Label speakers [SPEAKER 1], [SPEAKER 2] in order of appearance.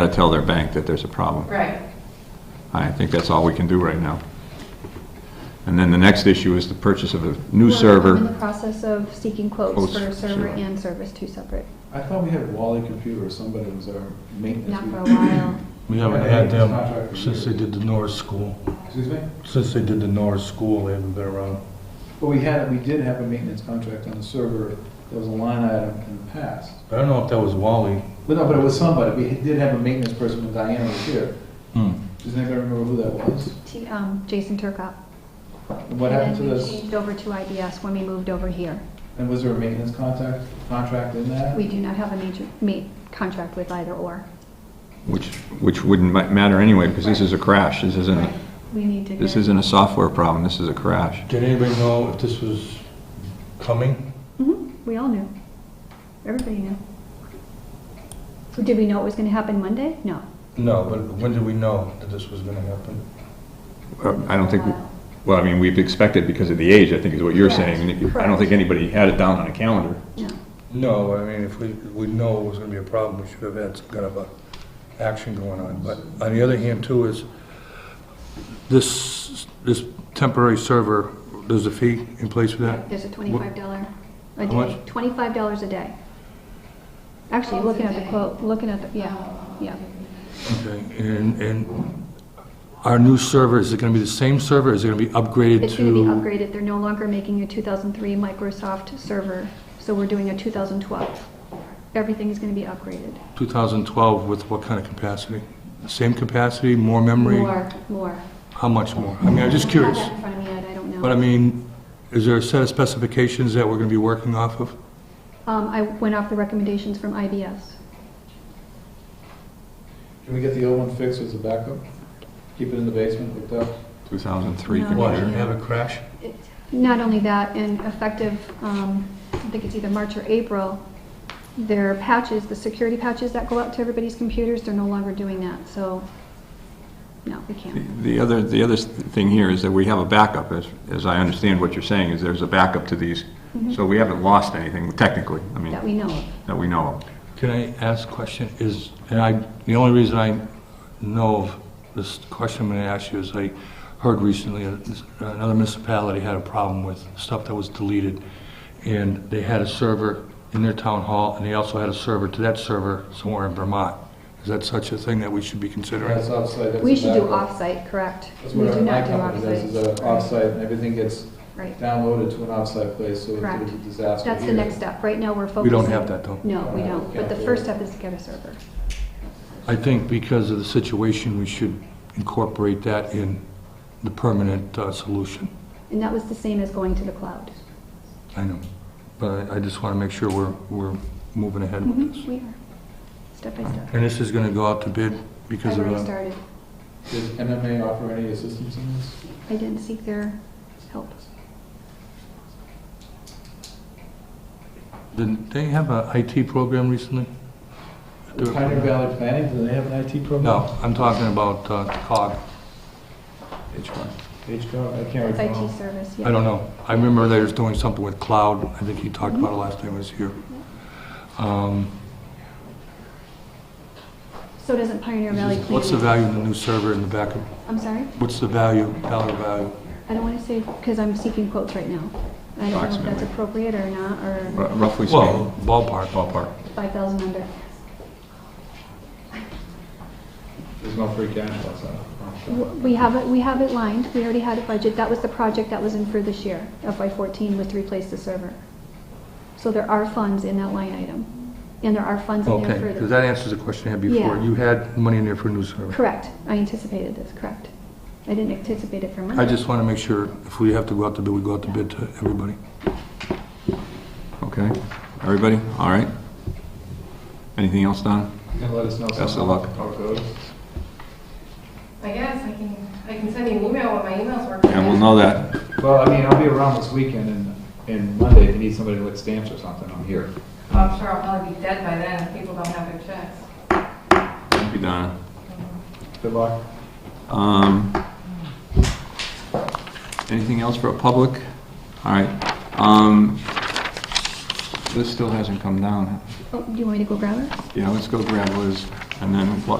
[SPEAKER 1] gotta tell their bank that there's a problem.
[SPEAKER 2] Right.
[SPEAKER 1] I think that's all we can do right now. And then the next issue is the purchase of a new
[SPEAKER 3] Well, I'm in
[SPEAKER 1] server.
[SPEAKER 3] the process of seeking quotes
[SPEAKER 1] Quotes
[SPEAKER 3] for
[SPEAKER 1] for
[SPEAKER 3] server
[SPEAKER 1] server.
[SPEAKER 3] and service, two separate,
[SPEAKER 4] I thought we had Wally Computer, or somebody was our maintenance.
[SPEAKER 3] not for a while.
[SPEAKER 5] We haven't had them since they did the Norris School.
[SPEAKER 4] Excuse me?
[SPEAKER 5] Since they did the Norris School, they haven't been around.
[SPEAKER 4] But we had, we did have a maintenance contract on the server, that was a line item in the past.
[SPEAKER 5] I don't know if that was Wally.
[SPEAKER 4] But no, but it was somebody, we did have a maintenance person when Diana was here.
[SPEAKER 5] Hmm.
[SPEAKER 4] Does anybody remember who that was?
[SPEAKER 3] T- um, Jason Turkop.
[SPEAKER 4] And what happened to
[SPEAKER 3] And then we
[SPEAKER 4] this,
[SPEAKER 3] changed over to IBS when we moved over here.
[SPEAKER 4] and was there a maintenance contact, contract in that?
[SPEAKER 3] We do not have a major, ma- contract with either or.
[SPEAKER 1] Which, which wouldn't ma- matter anyway, because this is a crash, this isn't, a-
[SPEAKER 3] We need to
[SPEAKER 1] this
[SPEAKER 3] get,
[SPEAKER 1] isn't a software problem, this is a crash.
[SPEAKER 5] Did anybody know if this was coming?
[SPEAKER 3] Mhm, we all knew. Everybody knew. Did we know it was gonna happen Monday? No.
[SPEAKER 5] No, but when did we know that this was gonna happen?
[SPEAKER 1] Uh, I don't think, well, I mean, we've expected because of the age, I think is what you're saying. and if- I don't think anybody had it down on a calendar.
[SPEAKER 3] No.
[SPEAKER 5] No, I mean, if we, we know it was gonna be a problem, we should have had some kind of a action going on. But on the other hand too is, this, this temporary server, there's a fee in place for that?
[SPEAKER 3] There's a twenty-five dollar a
[SPEAKER 5] How
[SPEAKER 3] day,
[SPEAKER 5] much?
[SPEAKER 3] twenty-five dollars a day. Actually,
[SPEAKER 2] Quotes a
[SPEAKER 3] looking at the
[SPEAKER 2] day.
[SPEAKER 3] quote, looking at the, yeah, yeah.
[SPEAKER 5] Okay, and, and our new server, is it gonna be the same server? Is it gonna be upgraded to?
[SPEAKER 3] It's going to be upgraded. They're no longer making a 2003 Microsoft server, so we're doing a 2012. Everything is going to be upgraded.
[SPEAKER 5] 2012 with what kind of capacity? Same capacity, more memory?
[SPEAKER 3] More, more.
[SPEAKER 5] How much more? I mean, I'm just curious.
[SPEAKER 3] I don't have that in front of me yet, I don't
[SPEAKER 5] But I
[SPEAKER 3] know.
[SPEAKER 5] mean, is there a set of specifications that we're going to be working off of?
[SPEAKER 3] Um, I went off the recommendations from IBS.
[SPEAKER 4] Can we get the old one fixed as a backup? Keep it in the basement hooked up?
[SPEAKER 1] 2003
[SPEAKER 3] No.
[SPEAKER 5] Why,
[SPEAKER 1] computer.
[SPEAKER 5] have a crash?
[SPEAKER 3] It- Not only that, and effective, um, I think it's either March or April, their patches, the security patches that go out to everybody's computers, they're no longer doing that, so, no, we
[SPEAKER 1] The
[SPEAKER 3] can't.
[SPEAKER 1] the other, the other thing here is that we have a backup, as, as I understand what you're saying, is there's a backup to these.
[SPEAKER 3] Mm-hmm.
[SPEAKER 1] So we haven't lost anything technically, I mean,
[SPEAKER 3] That we know of.
[SPEAKER 1] that we know of.
[SPEAKER 5] Can I ask a question? Is, and I, the only reason I know of this question I'm going to ask you is I heard recently uh, this- another municipality had a problem with stuff that was deleted, and they had a server in their town hall, and they also had a server to that server somewhere in Vermont. Is that such a thing that we should be considering?
[SPEAKER 4] That's offsite, that's
[SPEAKER 3] We
[SPEAKER 4] a
[SPEAKER 3] should do
[SPEAKER 4] backup.
[SPEAKER 3] off-site, correct?
[SPEAKER 4] That's
[SPEAKER 3] We
[SPEAKER 4] what
[SPEAKER 3] do
[SPEAKER 4] our- my
[SPEAKER 3] not do
[SPEAKER 4] company does, is
[SPEAKER 3] off-site.
[SPEAKER 4] a off-site, and everything gets
[SPEAKER 3] Right.
[SPEAKER 4] downloaded to an off-site place, so
[SPEAKER 3] Correct.
[SPEAKER 4] it's a disaster
[SPEAKER 3] That's the
[SPEAKER 4] here.
[SPEAKER 3] next step. Right now, we're focusing.
[SPEAKER 5] We don't have that, though.
[SPEAKER 3] No, we don't. But the first step is to get a server.
[SPEAKER 5] I think because of the situation, we should incorporate that in the permanent uh, solution.
[SPEAKER 3] And that was the same as going to the cloud.
[SPEAKER 5] I know, but I I just want to make sure we're, we're moving ahead with
[SPEAKER 3] Mhm,
[SPEAKER 5] this.
[SPEAKER 3] We are, step by step.
[SPEAKER 5] And this is going to go out to bid because
[SPEAKER 3] I've
[SPEAKER 5] of uh,
[SPEAKER 3] already
[SPEAKER 5] the...
[SPEAKER 3] started.
[SPEAKER 4] Does MMA offer any assistance in this?
[SPEAKER 3] I didn't seek their help.
[SPEAKER 5] Did they have a IT program recently? Do-
[SPEAKER 4] Pioneer Valley Planning, do they have an IT program?
[SPEAKER 5] No, I'm talking about uh, COG.
[SPEAKER 4] HCOG, I can't
[SPEAKER 3] It's IT
[SPEAKER 4] recall.
[SPEAKER 3] service, yeah.
[SPEAKER 5] I don't know. I remember they was doing something with cloud. I think you talked about it last time I was here. Um,
[SPEAKER 3] So doesn't Pioneer Valley Planning.
[SPEAKER 5] What's the value in the new server in the backup?
[SPEAKER 3] I'm sorry?
[SPEAKER 5] What's the value, dollar value?
[SPEAKER 3] I don't want to say, because I'm seeking quotes right now. I don't know if that's
[SPEAKER 1] Approximately.
[SPEAKER 3] appropriate or not, or
[SPEAKER 1] R- Roughly
[SPEAKER 5] Well,
[SPEAKER 1] speaking,
[SPEAKER 5] ballpark.
[SPEAKER 1] ballpark.
[SPEAKER 3] 5,000 under.
[SPEAKER 4] There's no free cash outside.
[SPEAKER 3] We have it, we have it lined, we already had a budget, that was the project that was in for this year, FY14, was to replace the server. So there are funds in that line item, and there are funds in
[SPEAKER 5] Okay,
[SPEAKER 3] there for
[SPEAKER 5] because
[SPEAKER 3] the...
[SPEAKER 5] that answers the question I had before.
[SPEAKER 3] Yeah.
[SPEAKER 5] You had money in there for a new server.
[SPEAKER 3] Correct, I anticipated this, correct. I didn't anticipate it for
[SPEAKER 5] I
[SPEAKER 3] Monday.
[SPEAKER 5] just want to make sure, if we have to go out to bid, we go out to bid to everybody.
[SPEAKER 1] Okay, everybody, all right? Anything else, Don?
[SPEAKER 4] You can let us know
[SPEAKER 1] Best of
[SPEAKER 4] somehow
[SPEAKER 1] luck.
[SPEAKER 4] how it goes.
[SPEAKER 2] I guess I can, I can send you an email when my email's working.
[SPEAKER 1] And we'll know that.
[SPEAKER 4] Well, I mean, I'll be around this weekend and, and Monday, if you need somebody to lick stamps or something, I'm here.
[SPEAKER 2] Well, I'm sure I'll probably be dead by then if people don't have their checks.
[SPEAKER 1] Thank you, Donna.
[SPEAKER 4] Good luck.
[SPEAKER 1] Um, Anything else for a public? All right. Um, This still hasn't come down.
[SPEAKER 3] Oh, do you want me to go grab it?
[SPEAKER 1] Yeah, let's go grab Liz, and then we'll